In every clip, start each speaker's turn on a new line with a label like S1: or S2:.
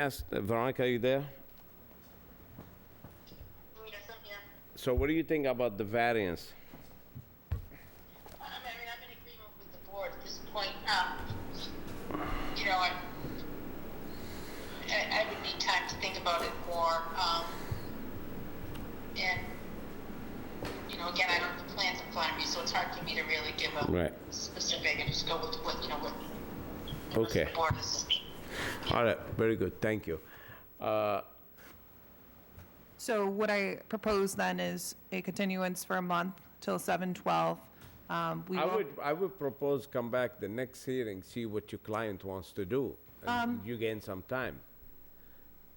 S1: Ask uh, Veronica, are you there?
S2: Yes, I'm here.
S1: So what do you think about the variance?
S2: I mean, I'm in agreement with the board at this point. Um, you know, I, I, I would need time to think about it more. Um, and, you know, again, I don't have the plans in front of me, so it's hard for me to really give a
S1: Right.
S2: specific and just go with what, you know, what the rest
S1: Okay.
S2: of the board is.
S1: All right, very good, thank you. Uh,
S3: So what I propose then is a continuance for a month till 7/12. Um, We
S1: I
S3: will,
S1: would, I would propose come back the next hearing, see what your client wants to do.
S3: Um,
S1: and You gain some time.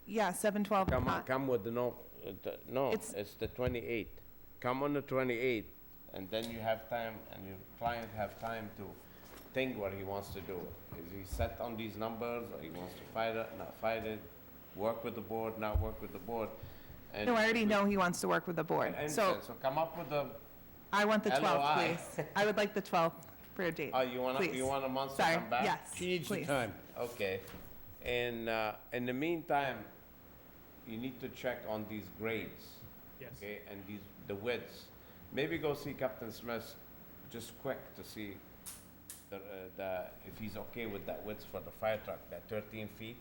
S3: yeah, 7/12.
S1: Come, on,
S3: uh,
S1: come with the no, uh, the- no,
S3: It's-
S1: it's the 28th. Come on the 28th, and then you have time, and your client have time to think what he wants to do. Is he set on these numbers, or he wants to fight it, not fight it, work with the board, not work with the board? and-
S3: No, I already know he wants to work with the board.
S1: And
S3: So
S1: so come up with a,
S3: I want the 12th,
S1: LOI.
S3: please. I would like the 12th for a date.
S1: oh, you want,
S3: please.
S1: you want a month to
S3: Sorry,
S1: come back?
S3: yes,
S4: She needs the
S3: please.
S4: time.
S1: Okay, and, uh, in the meantime, you need to check on these grades. Yes. Okay, and these, the widths. Maybe go see Captain Smith just quick to see the, uh, the, if he's okay with that width for the fire truck, that thirteen feet.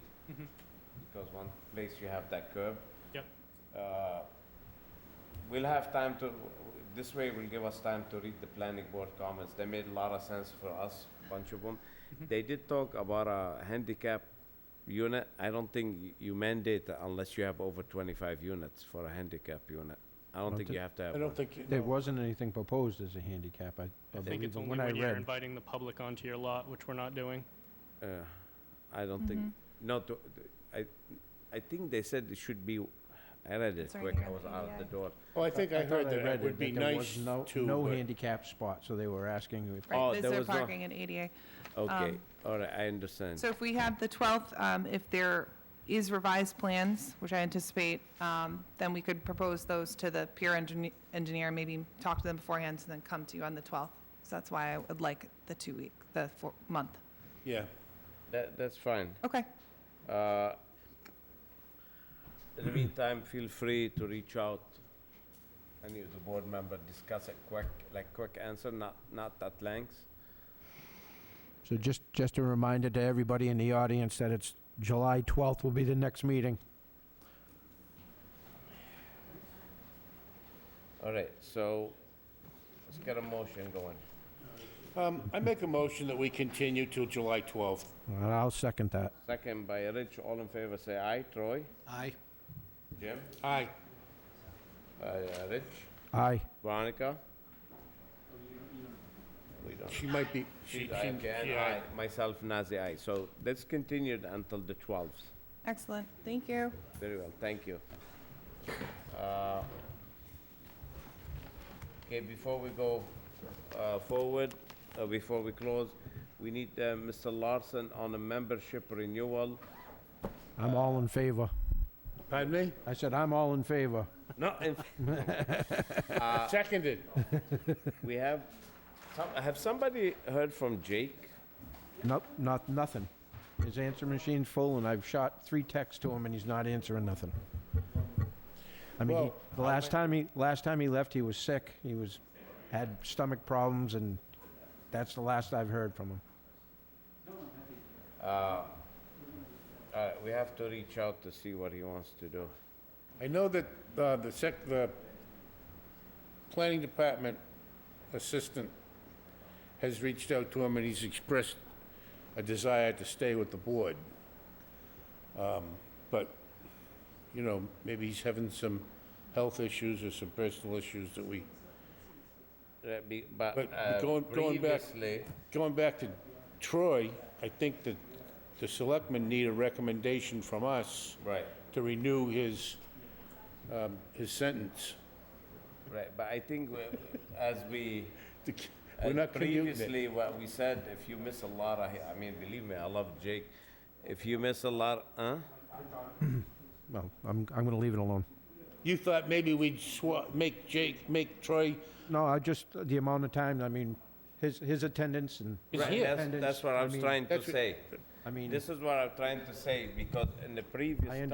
S1: Because one place you have that curb.
S5: Yep.
S1: Uh, We'll have time to, this way will give us time to read the planning board comments. They made a lot of sense for us, bunch of them. They did talk about a handicap unit. I don't think y- you mandate that unless you have over 25 units for a handicap unit. I don't think
S4: thi-
S1: you have to have
S4: I
S1: one.
S4: don't think, you-
S6: There
S4: no.
S6: wasn't anything proposed as a handicap, I I
S5: I think
S6: believe,
S5: it's
S6: from
S5: only
S6: what I
S5: when you're
S6: read.
S5: inviting the public onto your lot, which we're not doing.
S1: Uh, I don't think, no, to- I, I think they said it should be, I read it
S3: It's right
S1: quick,
S3: here
S1: I
S3: on
S1: was
S3: the
S1: out the
S3: EIA.
S1: door.
S4: oh, I think I
S6: thought
S4: heard that
S6: read
S4: it would be
S6: that there was
S4: nice
S6: no-
S4: to, uh,
S6: No
S4: but-
S6: handicap spot, so they were asking if,
S1: Oh,
S3: Right, is
S1: there
S3: there
S1: was no-
S3: parking in ADA?
S1: Okay,
S3: Um,
S1: all right, I understand.
S3: So if we have the 12th, um, if there is revised plans, which I anticipate, um, then we could propose those to the peer engineer- engineer, maybe talk to them beforehand, and then come to you on the 12th. So that's why I would like the two-week, the four- month.
S4: yeah.
S1: That, that's fine.
S3: Okay,
S1: Uh, In the meantime, feel free to reach out, any of the board member, discuss a quick, like, quick answer, not, not at length.
S6: so just, just a reminder to everybody in the audience that it's July 12th will be the next meeting.
S1: All right, so let's get a motion going.
S4: Um, I make a motion that we continue till July 12th.
S6: And I'll second that.
S1: Second by Rich, all in favor, say aye. Troy?
S4: Aye.
S1: Jim?
S4: Aye.
S1: Uh, Rich?
S6: Aye.
S1: Veronica? We don't.
S4: She might be, she,
S1: She's
S4: she,
S1: aye, Jan,
S4: yeah.
S1: aye. Myself, Nazir, aye. So that's continued until the 12th.
S3: excellent, thank you.
S1: Very well, thank you. Uh, Okay, before we go uh, forward, uh, before we close, we need uh, Mr. Larson on a membership renewal.
S6: I'm all in favor.
S4: Pardon me?
S6: Uh, I said, I'm all in favor.
S1: No, in-
S4: Seconded.
S1: we have, some- have somebody heard from Jake?
S6: Nope, not, nothing. His answer machine's full, and I've shot three texts to him, and he's not answering nothing. I mean, he-
S4: Well,
S6: the last time he, last time he left, he was sick, he was, had stomach problems, and that's the last I've heard from him.
S1: Uh, We have to reach out to see what he wants to do.
S4: I know that, uh, the sec, the planning department assistant has reached out to him and he's expressed a desire to stay with the board. Um, but, you know, maybe he's having some health issues or some personal issues that we,
S1: Uh, be- But
S4: But
S1: uh,
S4: going- going back-
S1: previously,
S4: going back to Troy, I think that the selectmen need a recommendation from us
S1: right,
S4: to renew his, um, his sentence.
S1: right, but I think we- as we
S4: The- We're
S1: And
S4: not gonna use it.
S1: Previously, what we said, if you miss a lot, I, I mean, believe me, I love Jake. If you miss a lot, huh?
S6: Well, I'm, I'm gonna leave it alone.
S4: You thought maybe we'd swa, make Jake, make Troy,
S6: No, I just, the amount of time, I mean, his, his attendance and.
S4: Right, here.
S1: That's, that's what I was
S6: mean,
S1: trying to
S4: That's what-
S1: say.
S6: I mean-
S1: This is what I'm trying to say, because in the previous
S6: I
S1: time.